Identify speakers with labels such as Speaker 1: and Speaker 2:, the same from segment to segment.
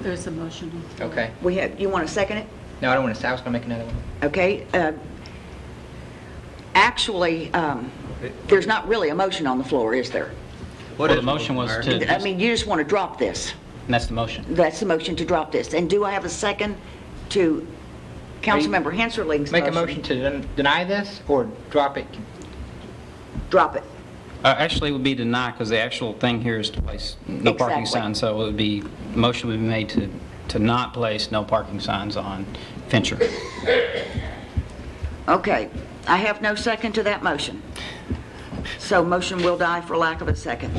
Speaker 1: There's a motion. on the floor.
Speaker 2: Okay.
Speaker 3: We have, you want to second it?
Speaker 2: No, I don't want to, I was going to make another one.
Speaker 3: Okay. uh, Actually, um, there's not really a motion on the floor, is there?
Speaker 4: Well, the motion was to,
Speaker 3: I mean, you just want to drop this.
Speaker 4: and that's the motion.
Speaker 3: That's the motion to drop this. And do I have a second to Councilmember Hanserling's motion?
Speaker 2: Make a motion to den- deny this or drop it?
Speaker 3: Drop it.
Speaker 4: Uh, Actually, it would be denied because the actual thing here is to place no parking
Speaker 3: Exactly.
Speaker 4: signs. So it would be, motion would be made to, to not place no parking signs on Fincher.
Speaker 3: Okay. I have no second to that motion. So motion will die for lack of a second.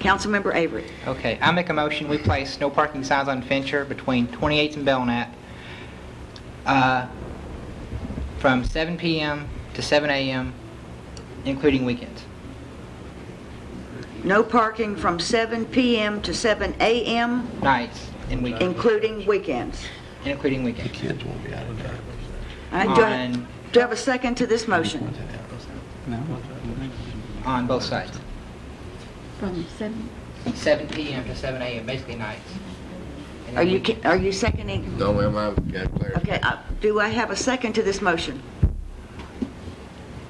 Speaker 3: Councilmember Avery.
Speaker 2: Okay, I make a motion, we place no parking signs on Fincher between 28th and Belknap uh, from 7 PM to 7 AM, including weekends.
Speaker 3: No parking from 7 PM to 7 AM,
Speaker 2: Nights and weekends,
Speaker 3: including weekends.
Speaker 2: including weekends.
Speaker 5: Kids won't be out of there.
Speaker 3: All right, do I-
Speaker 2: On-
Speaker 3: Do I have a second to this motion?
Speaker 2: On both sides.
Speaker 1: From seven,
Speaker 2: 7 PM to 7 AM, basically nights. And
Speaker 3: Are
Speaker 2: then
Speaker 3: you,
Speaker 2: weekends.
Speaker 3: ki- are you seconding?
Speaker 5: No, ma'am, I've got clarity.
Speaker 3: Okay, uh, do I have a second to this motion?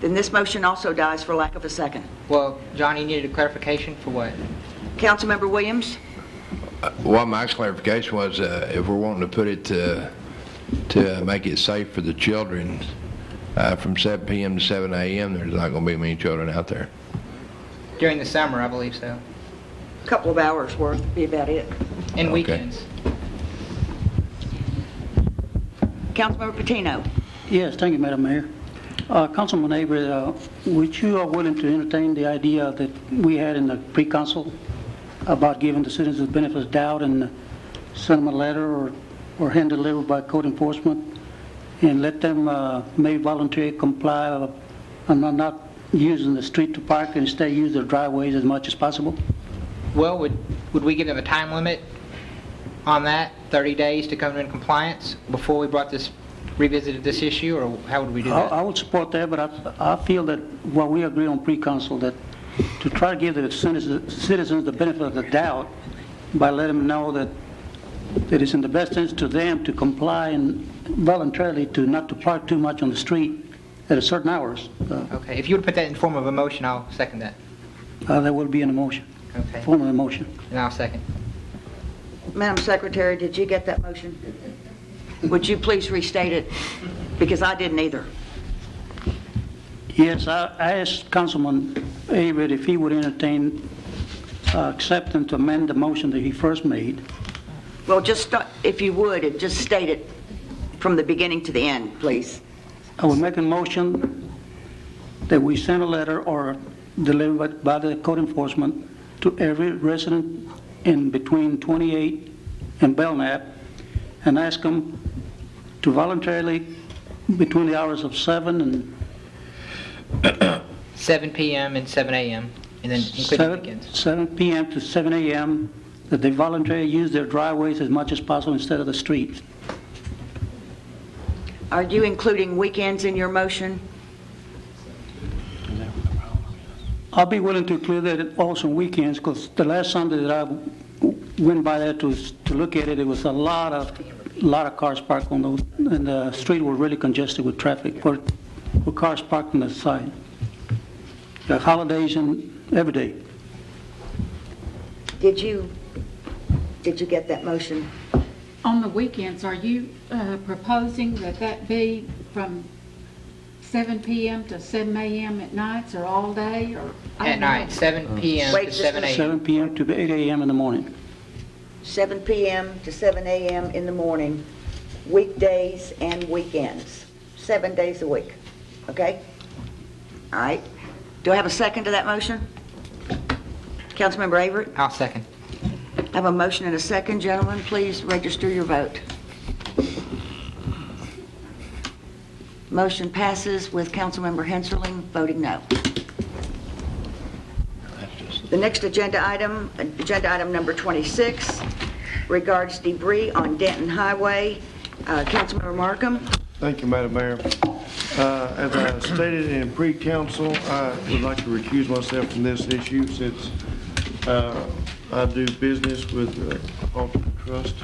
Speaker 3: Then this motion also dies for lack of a second.
Speaker 2: Well, John, you needed a clarification for what?
Speaker 3: Councilmember Williams?
Speaker 5: Well, my clarification was, uh, if we're wanting to put it to, to make it safe for the children, uh, from 7 PM to 7 AM, there's not going to be many children out there.
Speaker 2: During the summer, I believe so,
Speaker 3: Couple of hours worth, would be about it.
Speaker 2: and
Speaker 5: Okay.
Speaker 2: weekends.
Speaker 3: Councilmember Patino?
Speaker 6: Yes, thank you, Madam Mayor. Uh, Councilman Avery, uh, would you are willing to entertain the idea that we had in the pre-council about giving the citizens the benefit of the doubt and send them a letter or or hand delivered by code enforcement and let them uh, may voluntarily comply uh, and not- not using the street to park and instead use their driveways as much as possible?
Speaker 2: Well, would, would we give them a time limit on that, 30 days to come in compliance before we brought this, revisited this issue, or how would we do
Speaker 6: I
Speaker 3: Uh,
Speaker 6: I
Speaker 2: that?
Speaker 6: would support that, but I, I feel that what we agree on pre-council, that to try to give the citizens citizens the benefit of the doubt by letting them know that that it's in the best interest to them to comply and voluntarily to not to park too much on the street at a certain hours. Uh,
Speaker 2: Okay, if you would put that in form of a motion, I'll second that.
Speaker 6: uh, That will be an emotion,
Speaker 2: Okay,
Speaker 6: form of emotion.
Speaker 2: and I'll second.
Speaker 3: Madam Secretary, did you get that motion? Would you please restate it? Because I didn't either.
Speaker 6: Yes, I I asked Councilman Avery if he would entertain uh, accepting to amend the motion that he first made.
Speaker 3: Well, just, start- if you would, and just state it from the beginning to the end, please.
Speaker 6: I would make a motion that we send a letter or deliver it by the code enforcement to every resident in between 28 and Belknap and ask them to voluntarily, between the hours of 7 and
Speaker 2: 7 PM and 7 AM, and then including
Speaker 6: 7
Speaker 2: weekends.
Speaker 6: 7 PM to 7 AM, that they voluntarily use their driveways as much as possible instead of the streets.
Speaker 3: Are you including weekends in your motion?
Speaker 6: I'll be willing to clear that also on weekends, because the last Sunday that I went by there to, to look at it, it was a lot of, lot of cars parked on those, and the street were really congested with traffic, for, for cars parked on the side. The holidays and every day.
Speaker 3: Did you, did you get that motion?
Speaker 1: on the weekends, are you uh, proposing that that be from seven PM to seven AM at nights or all day or? I
Speaker 2: At
Speaker 1: don't know.
Speaker 2: night, 7 PM
Speaker 3: Wait,
Speaker 2: to
Speaker 3: just
Speaker 2: 7
Speaker 3: a
Speaker 2: AM.
Speaker 6: Seven PM to eight AM in the morning.
Speaker 3: 7 PM to 7 AM in the morning, weekdays and weekends, seven days a week, okay? All right. Do I have a second to that motion? Councilmember Avery?
Speaker 2: I'll second.
Speaker 3: I have a motion and a second. Gentlemen, please register your vote. Motion passes with Councilmember Henserling voting no. The next agenda item, agenda item number 26, regards debris on Denton Highway. Uh, Councilmember Markham?
Speaker 7: Thank you, Madam Mayor. Uh, As I stated in pre-council, I would like to recuse myself from this issue since uh, I do business with uh, Alter Trust